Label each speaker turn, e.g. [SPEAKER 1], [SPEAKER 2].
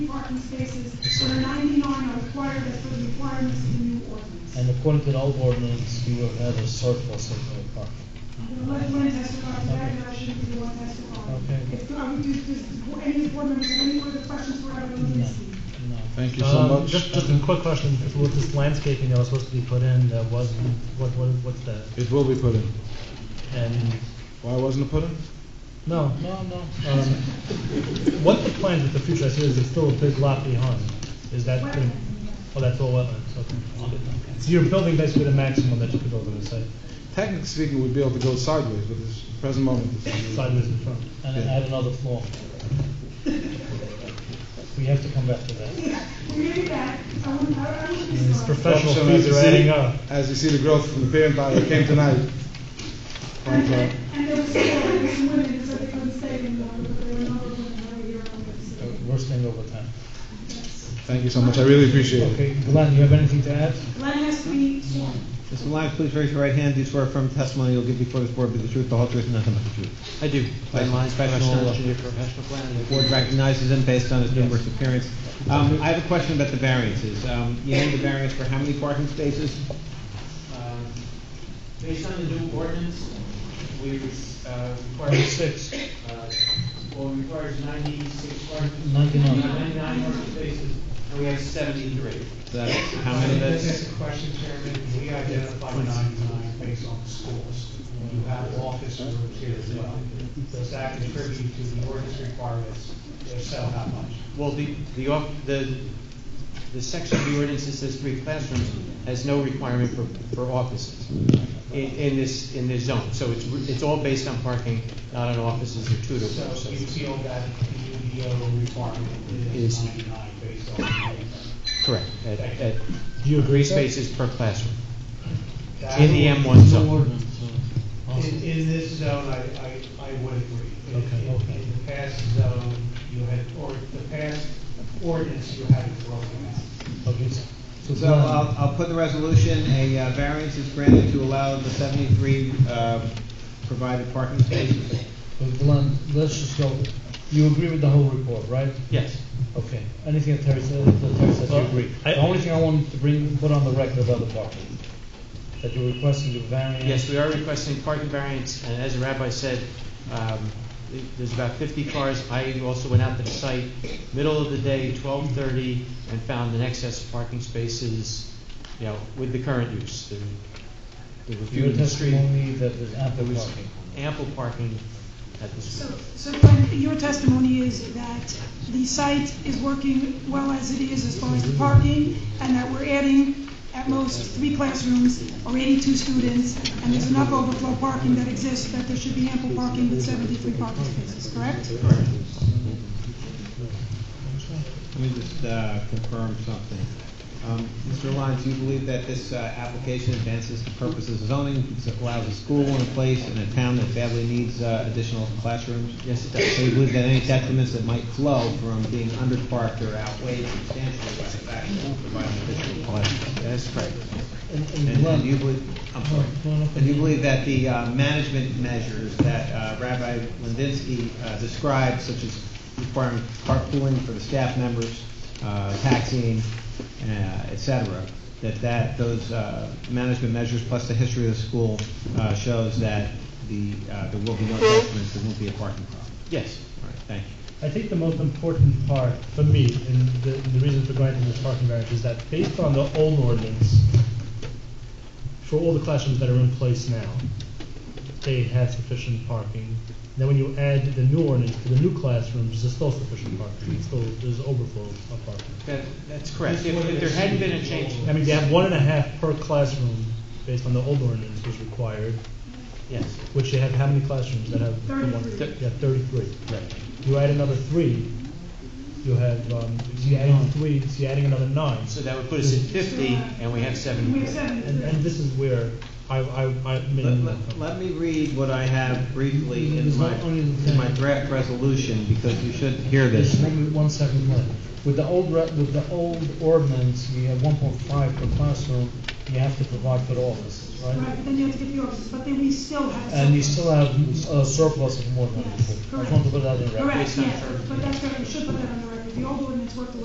[SPEAKER 1] parking spaces where ninety-nine are required as per the requirements of the new ordinance.
[SPEAKER 2] And according to the old ordinance, you would have a surplus of no parking.
[SPEAKER 1] I'm gonna let one testify to that, and I shouldn't be the one testifying.
[SPEAKER 2] Okay.
[SPEAKER 1] If, um, does, does, any board members have any further questions for Evan
[SPEAKER 2] No,
[SPEAKER 1] Lucy?
[SPEAKER 2] no.
[SPEAKER 3] Thank you so much.
[SPEAKER 4] Um, Just, just a quick question, if with this landscaping that was supposed to be put in, that wasn't, what, what, what's that?
[SPEAKER 3] It will be put in.
[SPEAKER 4] And,
[SPEAKER 3] Why wasn't it put in?
[SPEAKER 4] no,
[SPEAKER 2] No, no. Uh,
[SPEAKER 4] um, what the plans with the future, I see there's still a big lot behind, is that, gonna- oh, that's all wetlands, okay. So you're building basically the maximum that you could build on the site,
[SPEAKER 3] Technically speaking, we'd be able to go sideways, but this present moment, this is.
[SPEAKER 4] sideways in front.
[SPEAKER 2] And I have another flaw. We have to come back to that.
[SPEAKER 1] Yeah, we're gonna be back, I want, I, I want to
[SPEAKER 4] It's
[SPEAKER 1] start.
[SPEAKER 4] professional
[SPEAKER 3] So as
[SPEAKER 4] fees
[SPEAKER 3] you
[SPEAKER 4] are
[SPEAKER 3] see-
[SPEAKER 4] adding up.
[SPEAKER 3] As you see the growth from the parent body that came tonight.
[SPEAKER 1] And,
[SPEAKER 3] Thank you.
[SPEAKER 1] and there was, there was women, so they couldn't stay in the, but there were another women right here on the city.
[SPEAKER 2] Worst thing over time.
[SPEAKER 3] Thank you so much, I really appreciate it.
[SPEAKER 2] Okay, Glenn, you have anything to add?
[SPEAKER 1] Glenn has to be sworn.
[SPEAKER 5] Mr. Lyons, please raise your right hand. Do you swear affirm testimony you'll give before this board be the truth, the whole truth, and nothing but the truth?
[SPEAKER 6] I do.
[SPEAKER 5] By my professional-
[SPEAKER 6] professional planning.
[SPEAKER 5] The board recognizes him based on his numerous appearance. Um, I have a question about the variances. Um, You need the variance for how many parking spaces?
[SPEAKER 7] Uh,
[SPEAKER 6] Um, Based on the new ordinance, we uh, require six, uh, well, it requires ninety-six parking.
[SPEAKER 2] Ninety-nine.
[SPEAKER 6] Ninety-nine parking spaces, and we have seventy-three.
[SPEAKER 5] So That's how
[SPEAKER 7] This
[SPEAKER 5] many
[SPEAKER 6] Uh,
[SPEAKER 5] that's?
[SPEAKER 7] is a question, Chairman, we identified ninety-nine based on schools. You have office rooms here as well. Does that contribute to the ordinance requirements? If so, how much?
[SPEAKER 6] Well, the, the, off- the, the section of the ordinance that says three classrooms has no requirement for, for offices in, in this, in this zone. So it's, re- it's all based on parking, not on offices or tutor
[SPEAKER 7] So you
[SPEAKER 6] classes.
[SPEAKER 7] feel that the UDO requirement
[SPEAKER 6] Is-
[SPEAKER 7] is ninety-nine based on
[SPEAKER 6] Correct. At, at
[SPEAKER 2] Do you agree,
[SPEAKER 6] three
[SPEAKER 2] sir?
[SPEAKER 6] spaces per classroom,
[SPEAKER 7] that.
[SPEAKER 6] in the M one zone. uh,
[SPEAKER 7] In, in this zone, I, I, I would agree. In-
[SPEAKER 2] Okay,
[SPEAKER 7] in-
[SPEAKER 2] okay.
[SPEAKER 7] In the past zone, you had, or the past ordinance, you had it broken out.
[SPEAKER 2] Okay, so- so
[SPEAKER 5] So I'll, I'll put in the resolution, a uh, variance is granted to allow the 73 uh, provided parking spaces.
[SPEAKER 2] Glenn, Glenn, let's just go, you agree with the whole report, right?
[SPEAKER 6] Yes.
[SPEAKER 2] Okay, anything that Terry said, that Terry said, you
[SPEAKER 4] Well,
[SPEAKER 2] agree?
[SPEAKER 4] I-
[SPEAKER 2] The only thing I wanted to bring, put on the record about the parking, that you're requesting the variance.
[SPEAKER 6] Yes, we are requesting parking variance, and as the rabbi said, um, th- there's about 50 cars. I also went out to the site, middle of the day, 12:30, and found an excess of parking spaces, you know, with the current use. There- There were few
[SPEAKER 2] Your
[SPEAKER 6] in the street,
[SPEAKER 2] testimony that there's ample
[SPEAKER 6] there was
[SPEAKER 2] parking.
[SPEAKER 6] ample parking at the
[SPEAKER 1] So,
[SPEAKER 6] street.
[SPEAKER 1] so Glenn, your testimony is that the site is working well as it is as far as the parking, and that we're adding at most three classrooms or eighty-two students, and there's enough overflow parking that exists that there should be ample parking with seventy-three parking spaces, correct?
[SPEAKER 5] Let me just uh, confirm something. Um, Mr. Lyons, do you believe that this uh, application advances the purposes of zoning, because it allows a school in a place in a town that badly needs uh, additional classrooms?
[SPEAKER 6] Yes, it
[SPEAKER 5] So
[SPEAKER 6] does.
[SPEAKER 5] you believe that any detriments that might flow from being underparked are outweighed substantially by the fact that it provides additional classrooms?
[SPEAKER 6] That's correct.
[SPEAKER 2] And, and
[SPEAKER 5] And and do
[SPEAKER 2] Glenn,
[SPEAKER 5] you believe, I'm sorry,
[SPEAKER 2] No, no, no.
[SPEAKER 5] and do you believe that the uh, management measures that uh, Rabbi Lindinsky uh, described, such as requiring carpooling for the staff members, uh, taxiing, uh, et cetera, that that, those uh, management measures plus the history of the school uh, shows that the, uh, there will be no detriments, there won't be a parking problem?
[SPEAKER 6] Yes.
[SPEAKER 5] All right, thank you.
[SPEAKER 4] I think the most important part for me, and the, the reason for granting this parking variance is that based on the old ordinance, for all the classrooms that are in place now, they had sufficient parking. Then when you add the new ordinance to the new classrooms, there's still sufficient parking, It's still, there's overflow of parking.
[SPEAKER 6] That- That's correct. If if there hadn't been a change,
[SPEAKER 4] I mean, to have one and a half per classroom, based on the old ordinance was required,
[SPEAKER 6] yes.
[SPEAKER 4] which you have how many classrooms that have? the one-
[SPEAKER 1] Thirty-three.
[SPEAKER 4] You have thirty-three.
[SPEAKER 6] Right.
[SPEAKER 4] You add another three, you have, um, you adding three, so you're adding another nine.
[SPEAKER 6] So that would put us at 50, and
[SPEAKER 1] We
[SPEAKER 6] we have
[SPEAKER 1] have
[SPEAKER 6] 70.
[SPEAKER 4] And,
[SPEAKER 1] seventy-three.
[SPEAKER 4] and this is where I, I, I
[SPEAKER 5] Let-
[SPEAKER 4] mean,
[SPEAKER 5] Let let me read what I have briefly in
[SPEAKER 2] There's
[SPEAKER 5] my,
[SPEAKER 2] not only the-
[SPEAKER 5] in my draft resolution, because you should hear this.
[SPEAKER 2] there's one, one second left. With the old, re- with the old ordinance, we have one point five per classroom, you have to provide for the offices, right?
[SPEAKER 1] Right, then you have to get the offices, but then we still have.
[SPEAKER 2] And you
[SPEAKER 1] some-
[SPEAKER 2] still have a surplus of more than.
[SPEAKER 1] Yes,
[SPEAKER 2] I just want to put that in record.
[SPEAKER 1] Correct,
[SPEAKER 6] Based on
[SPEAKER 1] yes,
[SPEAKER 6] current-
[SPEAKER 1] but that's, correct. we should put that on the record, the old ordinance worked a